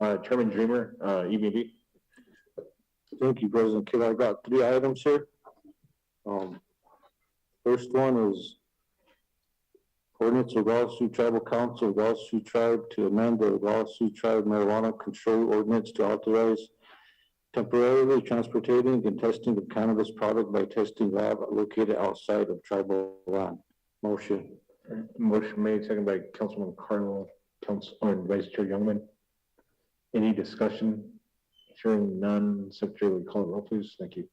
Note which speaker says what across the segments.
Speaker 1: Uh, Chairman Dreamer, uh, EBB. Thank you, President Kidd. I've got three items here. Um, first one is ordinance of Wallace Sioux Tribal Council, of Wallace Sioux Tribe to amend the Wallace Sioux Tribe marijuana control ordinance to authorize temporarily transporting and testing of cannabis product by testing lab located outside of tribal land. Motion. Motion made, second by Councilman Carl, Council, or Vice Chair Youngman. Any discussion? Hearing none, Secretary, will you call the roll, please? Thank you.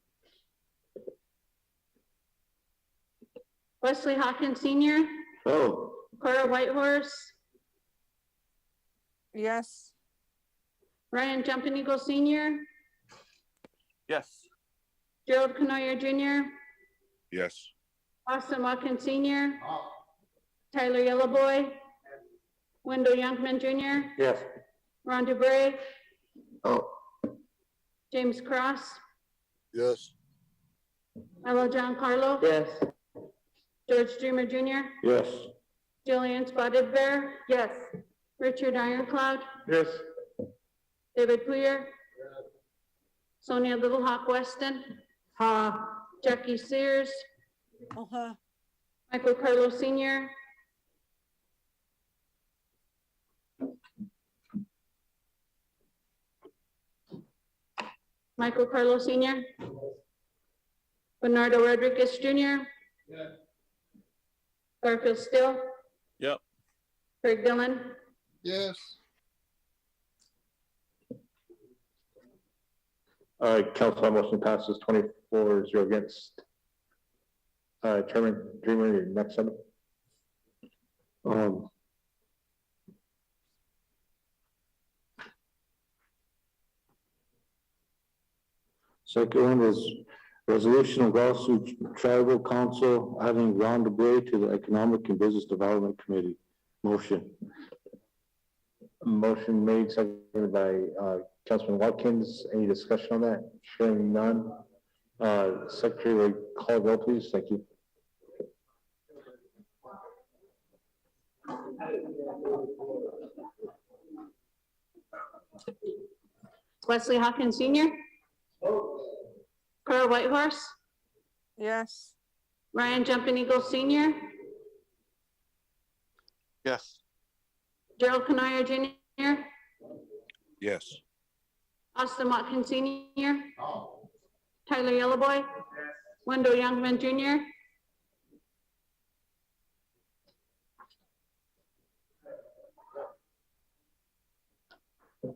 Speaker 2: Wesley Hawkins Senior,
Speaker 1: Oh.
Speaker 2: Cora Whitehorse,
Speaker 3: yes,
Speaker 2: Ryan Jumping Eagle Senior,
Speaker 4: yes,
Speaker 2: Gerald Canoyer Junior,
Speaker 5: yes,
Speaker 2: Austin Watkins Senior, Tyler Yellowboy, Wendell Youngman Junior,
Speaker 1: Yes.
Speaker 2: Ron DeBrey,
Speaker 1: Oh.
Speaker 2: James Cross,
Speaker 5: yes,
Speaker 2: Ella Giancarlo,
Speaker 1: Yes.
Speaker 2: George Dreamer Junior,
Speaker 1: Yes.
Speaker 2: Jillian Spotted Bear, yes, Richard Ironclad,
Speaker 1: Yes.
Speaker 2: David Poyer, Sonia Little Hawk Weston,
Speaker 6: ha,
Speaker 2: Jackie Sears,
Speaker 3: uh-huh,
Speaker 2: Michael Carlo Senior, Michael Carlo Senior, Bernardo Rodriguez Junior, Garfield Still,
Speaker 4: yep,
Speaker 2: Craig Dillon,
Speaker 5: yes,
Speaker 1: All right, council, that motion passes twenty-four zero against. Uh, Chairman Dreamer, your next item. Um. Second one is resolution of Wallace Tribal Council adding Ron DeBrey to the Economic and Business Development Committee. Motion. Motion made, seconded by, uh, Councilman Watkins, any discussion on that? Hearing none. Uh, Secretary, will you call the roll, please? Thank you.
Speaker 2: Wesley Hawkins Senior, Carl Whitehorse,
Speaker 3: yes,
Speaker 2: Ryan Jumping Eagle Senior,
Speaker 4: yes,
Speaker 2: Gerald Canoyer Junior,
Speaker 5: yes,
Speaker 2: Austin Watkins Senior. Tyler Yellowboy. Wendell Youngman Junior.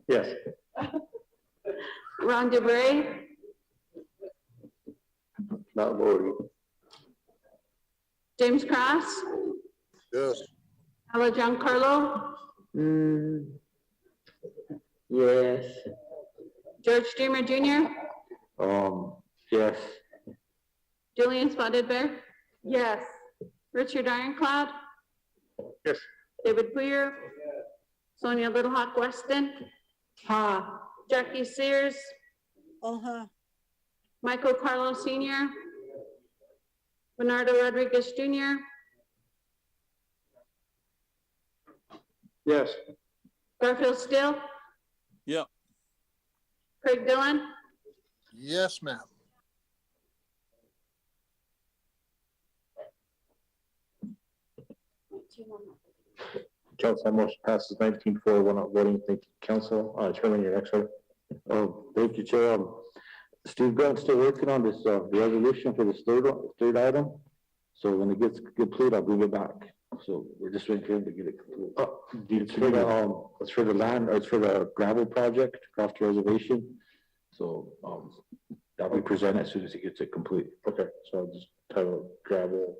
Speaker 1: Yes.
Speaker 2: Ron DeBrey.
Speaker 1: Not voting.
Speaker 2: James Cross.
Speaker 5: yes,
Speaker 2: Ella Giancarlo.
Speaker 6: mm, yes,
Speaker 2: George Dreamer Junior.
Speaker 1: Um, yes,
Speaker 2: Julian Spotted Bear. Yes. Richard Ironclad.
Speaker 1: Yes.
Speaker 2: David Poyer. Sonia Little Hawk Weston.
Speaker 6: ha,
Speaker 2: Jackie Sears.
Speaker 3: uh-huh,
Speaker 2: Michael Carlo Senior. Bernardo Rodriguez Junior.
Speaker 1: yes,
Speaker 2: Garfield Still.
Speaker 4: Yep.
Speaker 2: Craig Dillon,
Speaker 5: yes, ma'am,
Speaker 1: council, that motion passes nineteen four, one not voting, thank you, council, uh, Chairman, your next one. Oh, thank you, Chair, um, Steve Grant's still working on this, uh, resolution for this third, one- third item. So when it gets complete, I'll bring it back, so we're just waiting for him to get it. complete. It's for the, um, it's for the land, it's for the gravel project, craft reservation, so, um, that'll be presented as soon as he gets it complete. Okay, so I'll just title it gravel.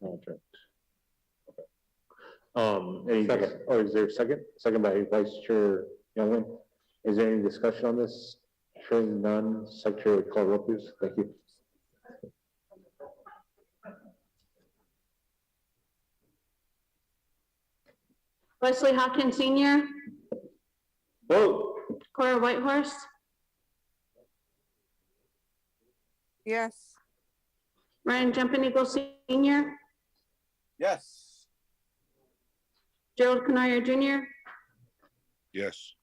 Speaker 1: Project. Um, any,
Speaker 5: Second.
Speaker 1: or is there a second? Second by Vice Chair Youngman. Is there any discussion on this? Hearing none, Secretary, would call roll please. Thank you.
Speaker 2: Wesley Hawkins Senior,
Speaker 1: Vote.
Speaker 2: Cora Whitehorse,
Speaker 3: yes,
Speaker 2: Ryan Jumping Eagle Senior,
Speaker 4: yes,
Speaker 2: Gerald Canoyer Junior,
Speaker 5: yes,